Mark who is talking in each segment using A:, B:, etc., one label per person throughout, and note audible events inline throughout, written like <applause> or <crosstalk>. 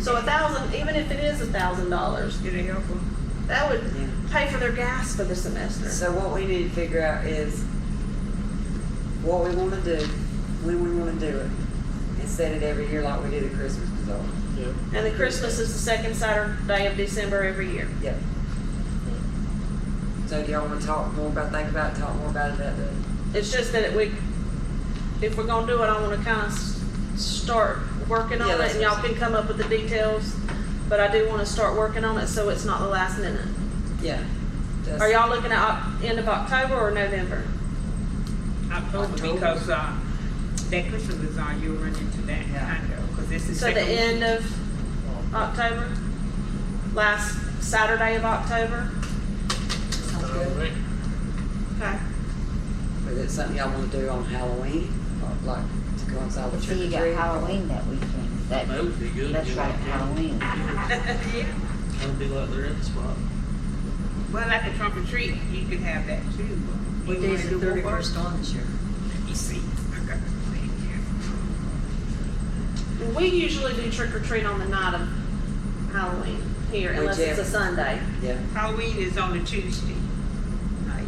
A: So a thousand, even if it is a thousand dollars,
B: Get a helper.
A: that would
C: Yeah.
A: pay for their gas for the semester.
C: So what we need to figure out is what we wanna do, when we wanna do it, and set it every year like we do the Christmas bazaar.
D: Yeah.
A: And the Christmas is the second Saturday of December every year.
C: Yep. So do y'all wanna talk more about, think about, it, talk more about it that day?
A: It's just that we, if we're gonna do it, I wanna kinda s- start working
C: Yeah,
A: on it
C: that's
A: and
C: what
A: y'all
C: I'm
A: can come up with the details. But I do wanna start working on it so it's not the last minute.
C: Yeah. Just-
A: Are y'all looking at Oc- end of October or November?
B: October,
C: October.
B: because, uh, that Christmas is on, you'll run into that, I know, because this is.
A: So the end of October? Last Saturday of October?
C: Sounds good.
D: Alright.
A: Okay.
C: Is it something y'all wanna do on Halloween, or like to coincide with
E: So
C: trick or
E: you got
C: treat?
E: Halloween that weekend, that,
D: That would be good.
E: that's
D: yeah.
E: right, Halloween.
B: <laughs>
A: Yeah.
D: That'd be like they're in the spot.
B: Well, like a trunk or treat, you could have that too.
F: What
B: You
F: day is
B: wanna
F: the
B: do
F: thirty
B: what?
F: first on this year?
B: Let me see, I got the thing here.
A: We usually do trick or treat on the night of Halloween here, unless it's a
C: Whichever.
A: Sunday.
C: Yeah,
B: Halloween is on a Tuesday night.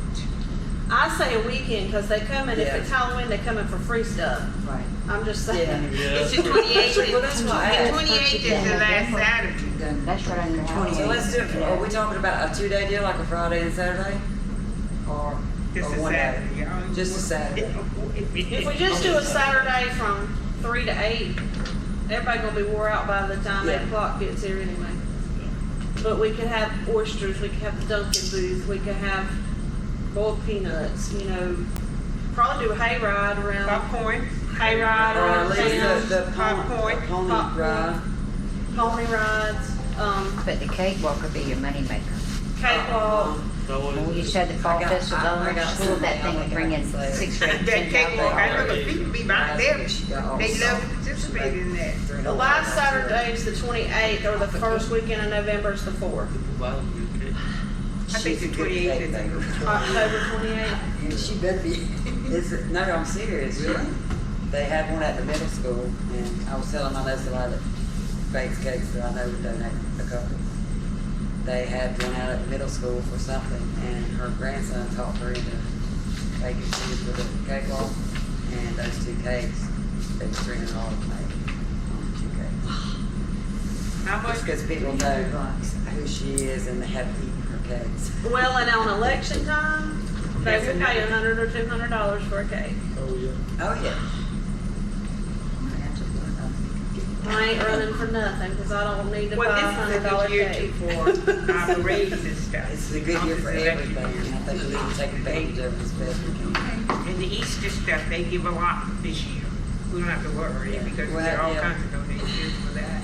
A: I say a weekend because they come and if
C: Yeah.
A: it's Halloween, they come in for free stuff.
C: right.
A: I'm just
C: Yeah.
A: saying.
B: It's
D: Yeah.
B: the twenty-eighth,
C: Well, that's why I
B: the
C: asked.
B: twenty-eighth is the last Saturday.
E: That's right under
C: So
E: Halloween.
C: let's do, it. are we talking about a two-day deal, like a Friday and Saturday? Or,
B: Just
C: or
B: a
C: Oh, one day?
B: Saturday, y'all.
C: Just a Saturday.
A: If we just do a Saturday from three to eight, everybody gonna be wore out by the time eight
C: Yeah.
A: o'clock gets here anyway. But we could have oysters, we could have the Dunkin' booth, we could have boiled peanuts, you know, probably do a hayride around,
B: <laughs> Popcorn,
A: hayride
C: Or
A: around
C: at least the,
A: town,
C: the pony,
B: Popcorn.
C: pony
A: Popcorn.
C: ride.
A: pony rides, um,
E: But the cake walk would be your moneymaker.
A: cakewalk.
D: That one
E: When you
D: is-
E: said the fall
C: I got-
E: festival,
C: I- I
E: over
C: got
E: school,
C: something
E: that thing would bring in
C: I got.
E: six
B: <laughs>
E: or
B: that
E: eight.
B: cakewalk, I know the people be right there,
C: Yeah.
B: they love to participate in that.
A: The last Saturday is the twenty-eighth or the first weekend in November is the fourth,
D: Wow, okay.
B: I think the
C: She's a good
B: 28th is
C: cake
B: April.
C: baker.
A: October twenty-eighth.
C: And she better be, <laughs> it's, no, I'm serious,
D: Really?
C: They had one at the middle school, and I was telling my lesson lad that bakes cakes that I know would donate a couple. They had one out at the middle school for something, and her grandson taught her into baking cakes with a cake walk, and those two cakes, they was three hundred dollars made on the two cakes.
B: How much?
C: Just because people know who she is and they have eaten her cakes.
A: Well, and on election time, they will pay a hundred or two hundred dollars for a cake.
D: Oh, yeah.
C: Oh, yeah.
A: I ain't running for nothing because I don't need to buy
B: Well,
A: a
B: this
A: hundred
B: is a
A: dollar
B: good year too
A: cake. <laughs>
B: for our raises and stuff.
C: It's a good year for
B: This election
C: everything,
B: year.
C: and I think we need to take advantage of it as best we can.
B: And the Easter stuff, they give a lot this year. We don't have to worry
C: Yeah.
B: because
C: Well,
B: there are all
C: yeah.
B: kinds of donations for that.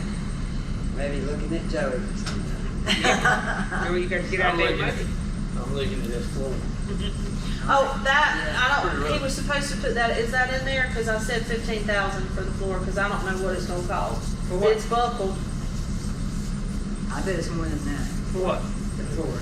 C: Maybe looking at Joey or
B: You know,
C: something.
B: you gotta get out
D: I'm
B: there.
D: looking at, I'm looking at this floor.
A: Oh, that, I don't, he was supposed to put that, is that in there? Because I said fifteen thousand for the floor because I don't know what it's gonna cost.
B: For what?
A: It's buckled.
F: <laughs> I bet it's more than that.
B: For what?
F: The floor.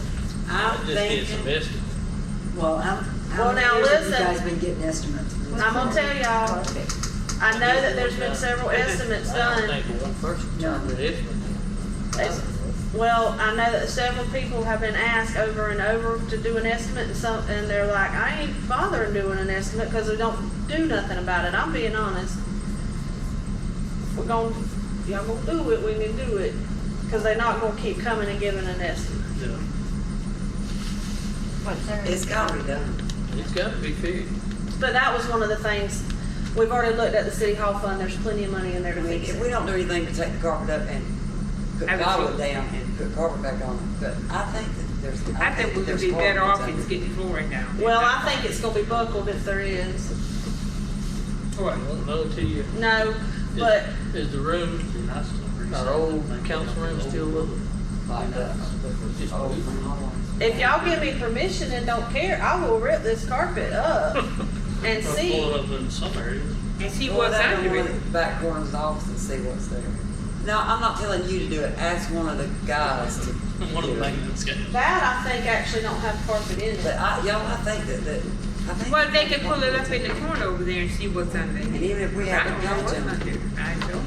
A: I'm
D: Just get some
A: thinking,
D: biscuits.
F: Well, how,
A: Well,
F: how many
A: now
F: years have you
A: listen.
F: guys been getting estimates? for this
A: I'm gonna
F: floor?
A: tell y'all,
E: Perfect.
A: I know that there's been several estimates
D: I
A: done.
D: don't think one person turned to this one.
A: It's- Well, I know that several people have been asked over and over to do an estimate and some, and they're like, I ain't bothering doing an estimate because we don't do nothing about it. I'm being honest. If We're gonna, y'all gonna do it, we can do it. Cause they're not gonna keep coming and giving an estimate.
D: Yeah.
E: What's there?
C: It's gotta be done.
D: It's got to be fixed.
A: But that was one of the things, we've already looked at the city hall fund, there's plenty of money in there
C: I
A: to
C: mean,
A: fix
C: if we
A: it.
C: don't do anything to take the carpet up and put
B: I would
C: plywood
B: too.
C: down and put carpet back on it, but I think that there's.
B: I think we would
C: there's
B: be better
C: carpet
B: off if
C: up.
B: it's getting flooring now.
A: Well, I think it's gonna be buckled if there is.
B: What?
D: I don't know till you.
A: No,
D: is-
A: but
D: Is the room, our old council room still up?
C: Like that.
D: Just
C: Oh,
D: move.
C: from Halloween.
A: If y'all give me permission and don't care, I will rip this carpet up and
D: Or
A: see.
D: pull it up in some areas.
B: And see
C: Well,
B: what's
C: that
B: under
C: one in
B: it.
C: the Back corner of the office and see what's there. No, I'm not telling you to do it, ask one of the guys to.
D: <laughs> One of
C: do
D: the
C: it.
D: maintenance guys.
A: That I think actually don't have carpet in
C: But
A: it.
C: I, y'all, I think that, that, I think.
B: Well, they can pull it up in the corner over there and see what's under it.
C: And even if we
B: I
C: have to
B: don't know
C: come
B: what's
C: to
B: under
C: them,
B: it. I don't.